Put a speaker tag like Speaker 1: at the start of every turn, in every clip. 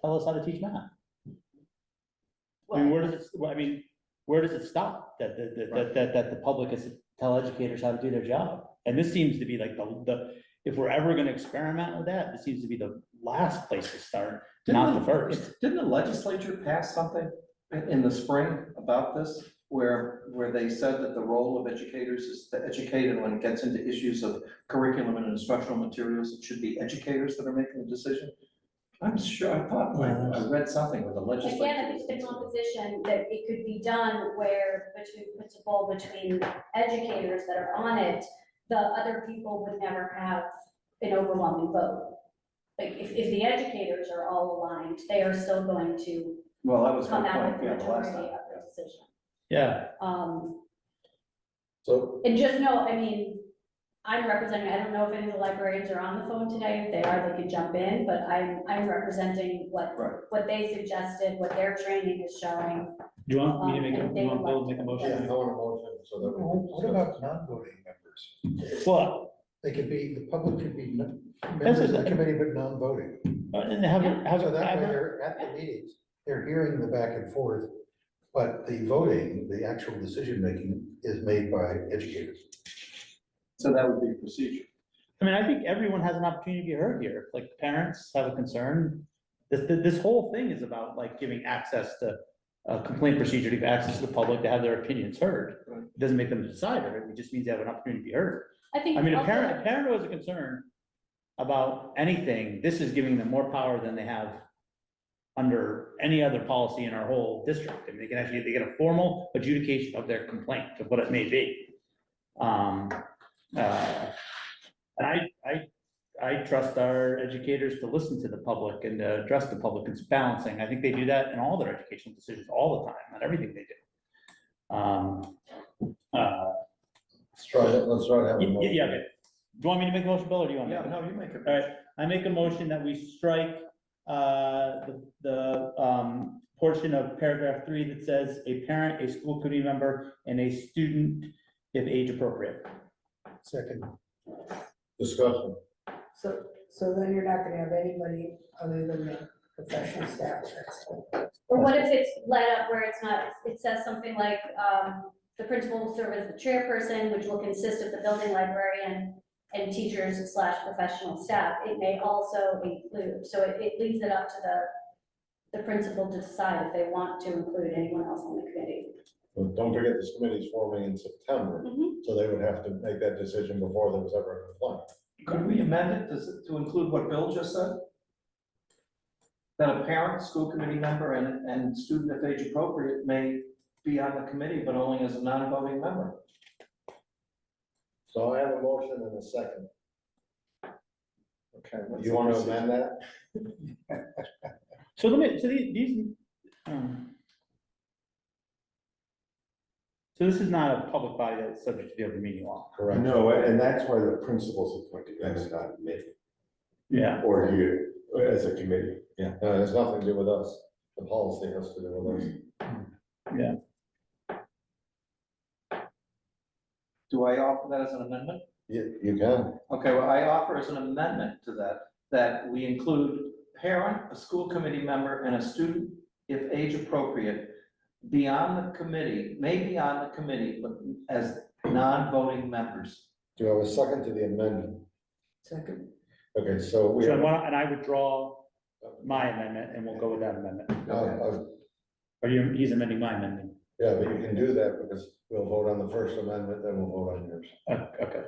Speaker 1: tell us how to teach math. I mean, where does it, well, I mean, where does it stop? That, that, that- that, that, that the public is to tell educators how to do their job? And this seems to be like the, the, if we're ever gonna experiment with that, this seems to be the last place to start, not the
Speaker 2: Didn't the-
Speaker 1: first.
Speaker 2: Didn't the legislature pass something in- in the spring about this? Where, where they said that the role of educators is to educate and when it gets into issues of curriculum and instructional materials, it should be educators that are making the decision? I'm sure, I thought, I I read something with the legislature.
Speaker 3: Again, if it's been one position that it could be done where between principal, between educators that are on it, the other people would never have an overwhelming vote. Like, if, if the educators are all aligned, they are still going to
Speaker 2: Well, that was my
Speaker 3: come out
Speaker 2: point,
Speaker 3: with the
Speaker 2: yeah, the last
Speaker 3: majority
Speaker 2: time.
Speaker 3: of
Speaker 2: yeah.
Speaker 3: the decision.
Speaker 1: Yeah,
Speaker 3: Um,
Speaker 4: So,
Speaker 3: and just know, I mean, I'm representing, I don't know if any of the librarians are on the phone today, if they are, they could jump in, but I'm, I'm representing what,
Speaker 2: Right.
Speaker 3: what they suggested, what their training is showing.
Speaker 1: do you want me to make a, you want Bill to make a
Speaker 4: yeah, I
Speaker 1: motion?
Speaker 4: want a motion so that we can
Speaker 5: What
Speaker 4: discuss.
Speaker 5: about non-voting members?
Speaker 1: Well,
Speaker 5: They could be, the public could be n-
Speaker 1: This
Speaker 5: members
Speaker 1: is-
Speaker 5: of the committee, but non-voting.
Speaker 1: uh, and have, have,
Speaker 5: So that way
Speaker 1: have,
Speaker 5: they're at the meetings, they're hearing the back and forth, but the voting, the actual decision-making is made by educators.
Speaker 2: So that would be procedure.
Speaker 1: I mean, I think everyone has an opportunity to be heard here, like parents have a concern. This, this, this whole thing is about like giving access to, a complaint procedure to give access to the public to have their opinions heard.
Speaker 2: Right.
Speaker 1: It Doesn't make them a decider, it just means they have an opportunity to be heard.
Speaker 3: I think.
Speaker 1: I mean, a
Speaker 3: also-
Speaker 1: parent, a parent was a concern about anything, this is giving them more power than they have under any other policy in our whole district, and they can actually, they get a formal adjudication of their complaint, of what it may be. Um, uh, and I, I, I trust our educators to listen to the public and to address the public, it's balancing, I think they do that in all their educational decisions all the time, on everything they do. Um, uh,
Speaker 4: Let's try it, let's try to have a
Speaker 1: Y- y-
Speaker 4: motion.
Speaker 1: Yeah, okay. Do you want me to make a motion, Bill, or do you want me?
Speaker 2: Yeah, no, you make it.
Speaker 1: All right, I make a motion that we strike, uh, the, the, um, portion of paragraph three that says a parent, a school committee member, and a student if age appropriate.
Speaker 5: Second,
Speaker 4: Discussion.
Speaker 6: So, so then you're not gonna have anybody other than the professional staff, that's all.
Speaker 3: Or what if it's let up where it's not, it says something like, um, the principal will serve as the chairperson, which will consist of the building librarian and teachers slash professional staff. It may also include, so it, it leaves it up to the, the principal to decide if they want to include anyone else on the committee.
Speaker 4: But Don't forget this committee's forming in September,
Speaker 1: Mm-hmm.
Speaker 3: Mhm.
Speaker 4: so they would have to make that decision before there was ever a complaint.
Speaker 2: Could we amend it to, to include what Bill just said? That a parent, school committee member, and, and student if age appropriate may be on the committee, but only as a non-voting member.
Speaker 4: So I have a motion and a second.
Speaker 2: Okay.
Speaker 4: You want to amend that?
Speaker 1: So let me, so the- these, um. So this is not a public body that's subject to the open meeting law.
Speaker 4: Correct.
Speaker 7: No, and that's why the principal's appointed, that's not me,
Speaker 1: Yeah.
Speaker 7: or you, as a committee.
Speaker 4: Yeah, no, it has nothing to do with us. The policy has to do with us.
Speaker 2: Do I offer that as an amendment?
Speaker 4: You, you can.
Speaker 2: Okay, well, I offer as an amendment to that, that we include parent, a school committee member, and a student if age appropriate be on the committee, may be on the committee, but as non-voting members.
Speaker 4: Do I have a second to the amendment?
Speaker 6: Second,
Speaker 4: Okay, so we.
Speaker 1: So,
Speaker 4: have-
Speaker 1: why don't- and I withdraw my amendment, and we'll go with that amendment.
Speaker 4: No, uh,
Speaker 1: Or you, he's amending my amendment.
Speaker 4: Yeah, but you can do that because we'll vote on the first amendment, then we'll vote on yours.
Speaker 1: Oh, Okay.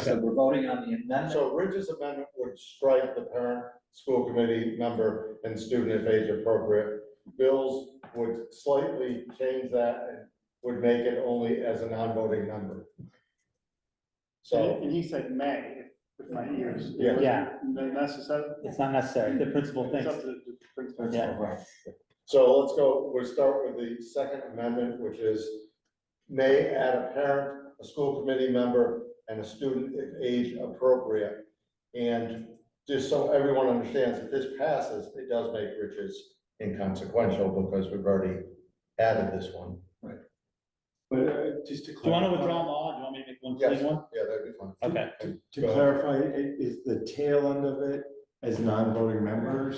Speaker 2: So we're voting on the amendment.
Speaker 4: So Ridge's amendment would strike the parent, school committee member, and student if age appropriate. Bill's would slightly change that and would make it only as a non-voting member. So,
Speaker 8: And he said may, with my ears.
Speaker 4: Yeah.
Speaker 1: Yeah.
Speaker 8: Necessary.
Speaker 1: It's not necessary, the principal
Speaker 8: It's
Speaker 1: thinks.
Speaker 8: up to the principal.
Speaker 1: Yeah.
Speaker 4: so let's go, we'll start with the second amendment, which is may add a parent, a school committee member, and a student if age appropriate. And just so everyone understands, if this passes, it does make riches inconsequential because we've already added this one.
Speaker 8: But uh, just to clarify.
Speaker 1: Do you want to withdraw them all? Do you want me to make one
Speaker 4: Yes.
Speaker 1: clean one?
Speaker 4: Yeah, that'd be fun.
Speaker 1: Okay.
Speaker 7: To clarify, i- is the tail end of it as non-voting members?